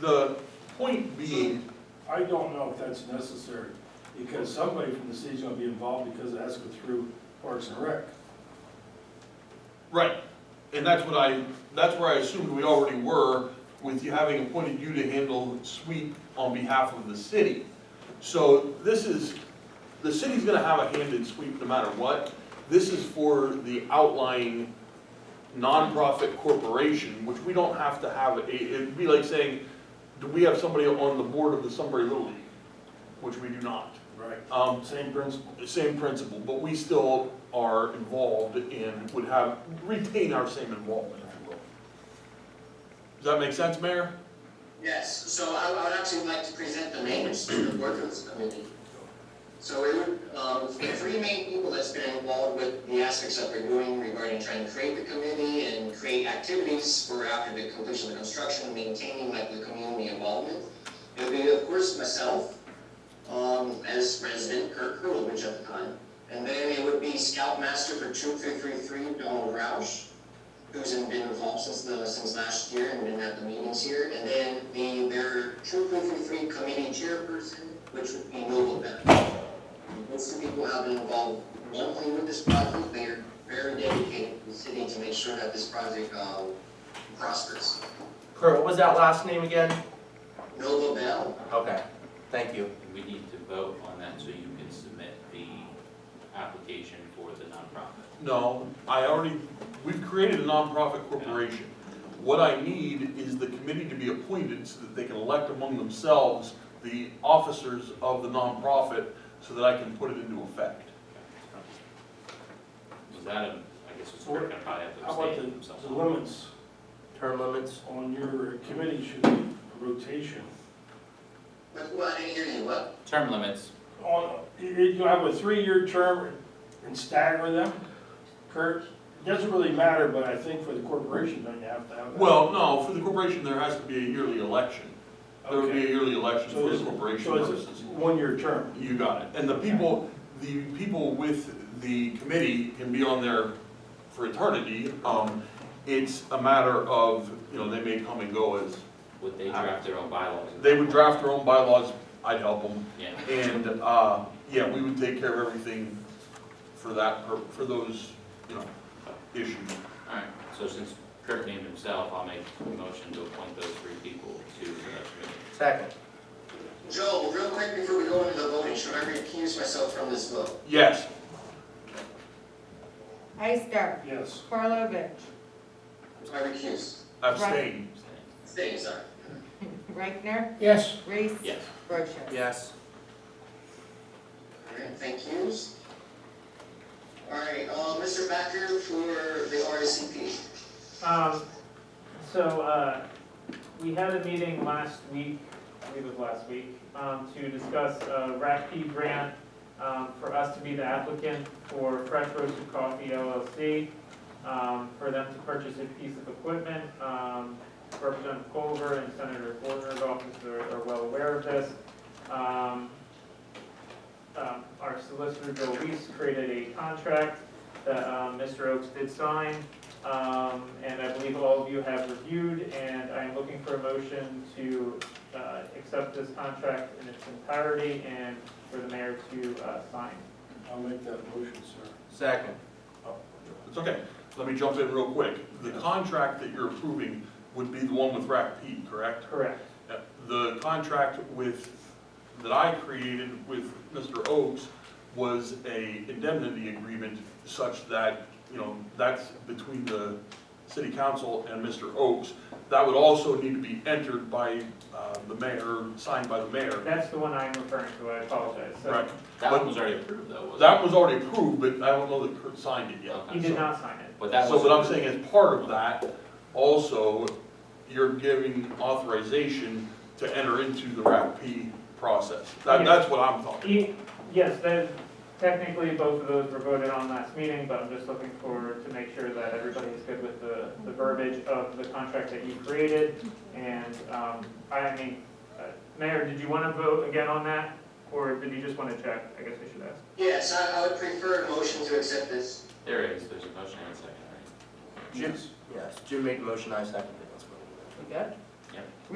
the point being, I don't know if that's necessary, because somebody from the city's gonna be involved because it has to go through Parks and Rec. right, and that's what I, that's where I assumed we already were with you having appointed you to handle sweep on behalf of the city. So this is, the city's gonna have a hand in sweep no matter what. This is for the outlying nonprofit corporation, which we don't have to have, it- it'd be like saying, do we have somebody on the board of the Sunbury Little League? Which we do not. Right. Um, Same principle. the same principle, but we still are involved and would have, retain our same involvement, if you will. Does that make sense, Mayor? Yes, so I I would actually like to present the names to the workers committee. So it would, um, the three main people that's been involved with the aspects that we're doing regarding trying to create the committee and create activities for after the completion of the construction, maintaining like the community involvement. It would be, of course, myself, um, as president, Kirk Kulovich at the time. And then it would be Scoutmaster for two three three three, Donald Roush who's been involved since the, since last year and been at the meetings here, and then the, their two three three three committee chairperson, which would be Noble Beck. Most of the people have been involved monthly with this project, they are very dedicated to the city to make sure that this project, um, prospers. Kurt, what was that last name again? Noble Bell, Okay, thank you. We need to vote on that so you can submit the application for the nonprofit. No, I already, we've created a nonprofit corporation. What I need is the committee to be appointed so that they can elect among themselves the officers of the nonprofit so that I can put it into effect. Was that a, I guess it's, we're gonna probably have to How about abstain the, the themselves. limits Term limits? on your committee should be a rotation? but, well, I didn't hear you, what? Term limits, On, you, you have a three-year term and stagger them, Kurt? It doesn't really matter, but I think for the corporation, don't you have to have that? Well, no, for the corporation, there has to be a yearly election. There would be a Okay. yearly election So for the it's- corporation So purposes. it's a one-year term. You got it. And the people, the people with the committee can be on there for eternity. Um, it's a matter of, you know, they may come and go as, would they draft their own bylaws? they would draft their own bylaws, I'd help them. Yeah, And, uh, yeah, we would take care of everything for that, pur- for those, you know, issues. alright, so since Kurt named himself, I'll make a motion to appoint those three people to the committee. Second. Joel, real quick before we go into the voting, should I recuse myself from this vote? Yes, Ister, Yes. Karlovic, I recuse. abstain. Stay, sorry. Reichner, Yes, Reese, Yes, Brochus. Yes. Alright, thank yous. Alright, uh, Mr. Backer for the RSCP. Um, so, uh, we had a meeting last week, I believe it was last week, um, to discuss a RACP grant, um, for us to be the applicant for Fresh Roasted Coffee LLC, um, for them to purchase a piece of equipment. Um, Representative Culver and Senator Gordner's office are, are well aware of this. Um, um, our solicitor, Bill Weiss, created a contract that, um, Mr. Oaks did sign. Um, and I believe all of you have reviewed, and I am looking for a motion to, uh, accept this contract in its entirety and for the mayor to, uh, sign. I'll make that motion, sir. Second. It's okay. Let me jump in real quick. The contract that you're approving would be the one with RACP, correct? Correct. The contract with, that I created with Mr. Oakes was a indemnity agreement such that, you know, that's between the city council and Mr. Oakes. That would also need to be entered by uh, the mayor, signed by the mayor. That's the one I'm referring to, I apologize. So Right. that one was already approved though, wasn't it? That was already approved, but I don't know that Kurt signed it yet. Okay. He did not sign it. But that So was. what I'm saying is part of that, also, you're giving authorization to enter into the RAP P process. That, Yes. that's what I'm talking. He, yes, that, technically, both of those were voted on last meeting, but I'm just looking for, to make sure that everybody is good with the, the verbiage of the contract that you created. And, um, I mean, uh, Mayor, did you want to vote again on that, or did you just want to check? I guess I should ask. Yes, I, I would prefer a motion to accept this. There is, there's a motion and a second, right? Yes, Jim made the motion, I seconded it. Let's vote. You good?